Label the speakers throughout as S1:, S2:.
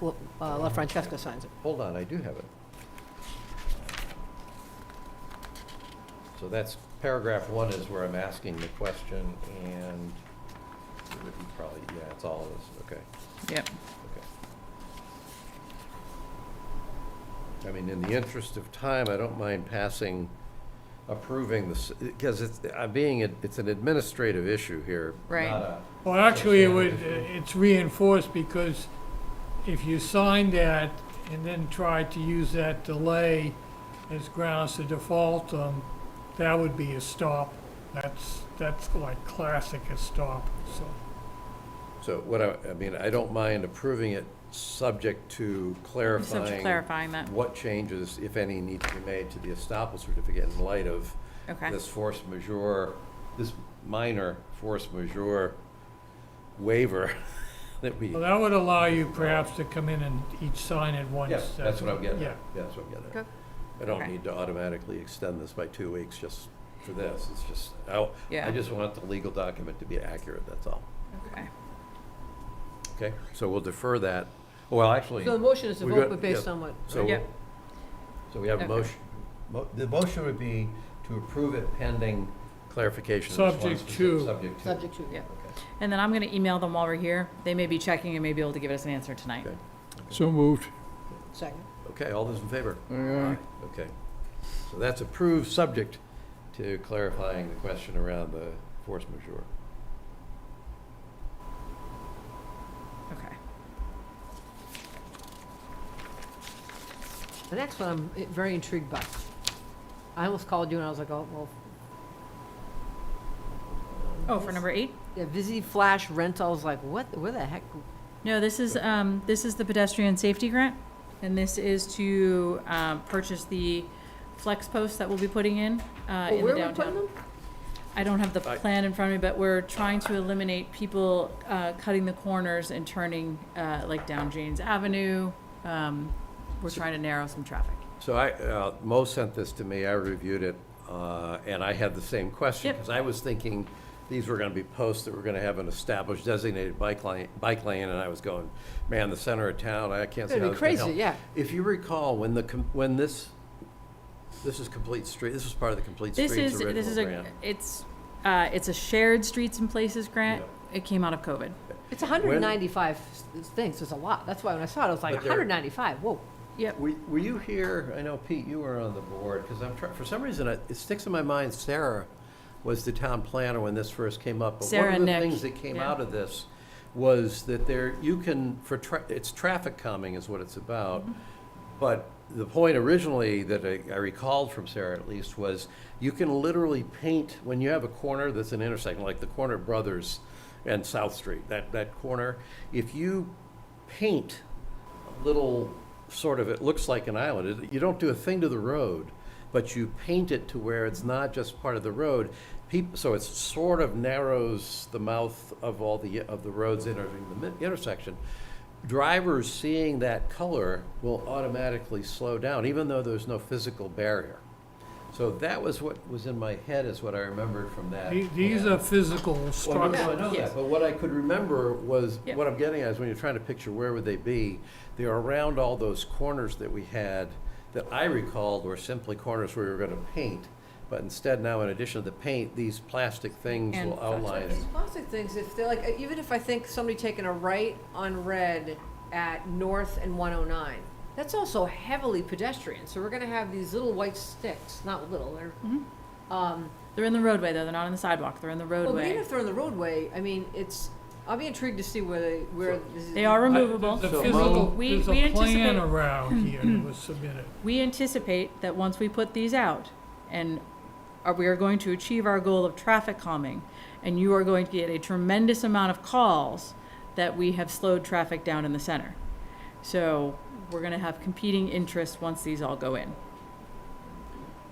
S1: La uh, La Francesca signs it.
S2: Hold on, I do have it. So that's, paragraph one is where I'm asking the question, and it would be probably, yeah, it's all this, okay,
S3: Yep.
S2: okay. I mean, in the interest of time, I don't mind passing, approving this, because it's, I'm being, it's an administrative issue here.
S3: Right.
S2: not a-
S4: Well, actually, it would, it's reinforced because if you sign that and then try to use that delay as grounds to default, um, that would be a stop. That's, that's like classic a stop, so.
S2: So what I, I mean, I don't mind approving it, subject to
S3: Subject
S2: clarifying.
S3: clarifying that.
S2: what changes, if any, need to be made to the estoppel certificate in light of
S3: Okay.
S2: this force majeure, this minor force majeure waiver that we.
S4: Well, that would allow you perhaps to come in and each sign at once.
S2: Yes, that's what I'm getting
S4: Yeah.
S2: at. Yeah, That's what I'm getting at.
S3: Okay.
S2: I don't
S3: Okay.
S2: need to automatically extend this by two weeks just for this. It's just, I,
S3: Yeah.
S2: I just want the legal document to be accurate, that's all.
S3: Okay.
S2: Okay? So we'll defer that. Well, actually.
S1: So the motion is to
S2: we
S1: vote,
S2: got-
S1: but based
S2: yeah.
S1: on what?
S2: So,
S3: Yeah.
S2: so we have a
S3: Okay.
S2: motion, mo- the motion would be to approve it pending clarification. of this one
S4: Subject
S2: specific-
S4: to.
S2: Subject to.
S1: Subject to.
S3: Yeah.
S2: Okay.
S3: And then I'm going to email them while we're here. They may be checking and may be able to give us an answer tonight.
S2: Okay.
S5: So moved.
S1: Second.
S2: Okay, all those in favor?
S5: Aye, aye.
S2: Okay. So that's approved, subject to clarifying the question around the force majeure.
S3: Okay.
S1: The next one I'm eh, very intrigued by. I almost called you and I was like, oh, well,
S3: Oh, for number eight?
S1: yeah, Visi Flash Rentals, like, what, where the heck?
S3: Uh, No, this is, um, this is the pedestrian safety grant, and this is to, um, purchase the flex posts that we'll be putting in, uh, in the
S1: Where are we putting
S3: downtown.
S1: them?
S3: I don't have the
S2: I-
S3: plan in front of me, but we're trying to eliminate people, uh, cutting the corners and turning, uh, like down James Avenue. Um, we're trying to narrow some traffic.
S2: So I, uh, Mo sent this to me, I reviewed it, uh, and I had the same question.
S3: Yep.
S2: Because I was thinking these were gonna be posts that were gonna have an established designated bike lane, bike lane, and I was going, man, the center of town, I can't see
S1: It'd
S2: how
S1: be
S2: this can help.
S1: crazy, yeah.
S2: If you recall, when the, com- when this, this is Complete Street, this was part of the Complete Streets
S3: This is,
S2: original grant.
S3: this is a, it's, uh, it's a shared streets and places grant. It came out of COVID.
S1: It's 195 s- things, it's a lot. That's why when I saw it, I was like,
S2: But they're-
S1: 195, whoa.
S3: Yep.
S2: Were, were you here, I know Pete, you were on the board, because I'm trying, for some reason, it it sticks in my mind, Sarah was the town planner when this first came up.
S3: Sarah
S2: But one of the
S3: Nick,
S2: things that came
S3: yeah.
S2: out of this was that there, you can, for, tra- it's traffic calming is what it's about.
S3: Mm-hmm.
S2: But the point originally that I I recalled from Sarah at least was, you can literally paint, when you have a corner that's an intersection, like the corner of Brothers and South Street, that, that corner, if you paint little sort of, it looks like an island. It- You don't do a thing to the road, but you paint it to where it's not just part of the road. Peop so it sort of narrows the mouth of all the, of the roads entering the mi- intersection. Drivers seeing that color will automatically slow down, even though there's no physical barrier. So that was what was in my head, is what I remembered from that.
S4: The- These
S2: plan.
S4: are physical
S2: Well, no, I
S4: structures.
S2: know that, but what I could remember was,
S3: Yeah.
S2: what I'm getting at is when you're trying to picture where would they be, they're around all those corners that we had that I recalled were simply corners where we were gonna paint. But instead now, in addition to the paint, these plastic things
S3: And
S2: will outline it.
S1: These plastic things, if they're like, uh, even if I think somebody taking a right on red at North and 109, that's also heavily pedestrian. So we're going to have these little white sticks, not little, they're,
S3: Mm-hmm.
S1: um,
S3: They're in the roadway though. They're not on the sidewalk. They're in the
S1: well, but even
S3: roadway.
S1: if they're on the roadway, I mean, it's, I'll be intrigued to see where they, where. this is-
S3: They are removable.
S4: The
S2: So
S4: physical,
S2: Mo-
S3: We-
S4: there's
S3: we
S4: a
S3: anticipate-
S4: plan around here that was submitted.
S3: We anticipate that once we put these out and are, we are going to achieve our goal of traffic calming and you are going to get a tremendous amount of calls that we have slowed traffic down in the center. So we're gonna have competing interests once these all go in.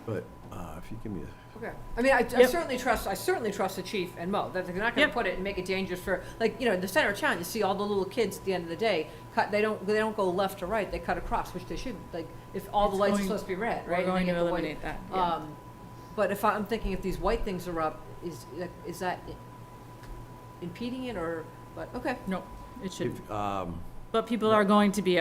S2: But, uh, if you give me a,
S1: Okay. I mean, I, I
S3: Yep.
S1: certainly trust, I certainly trust the chief and Mo, that they're not gonna
S3: Yep.
S1: put it and make it dangerous for, like, you know, in the center of town, you see all the little kids at the end of the day, cut, they don't, they don't go left to right, they cut across, which they shouldn't, like, if all the
S3: It's
S1: lights are
S3: going-
S1: supposed to be red, right?
S3: We're
S1: and they
S3: going
S1: get
S3: to
S1: the white-
S3: eliminate that, yeah.
S1: Um, but if I- I'm thinking if these white things are up, is, is that impeding it or, but, okay.
S3: No, it should,
S2: if, um,
S3: but people are going to be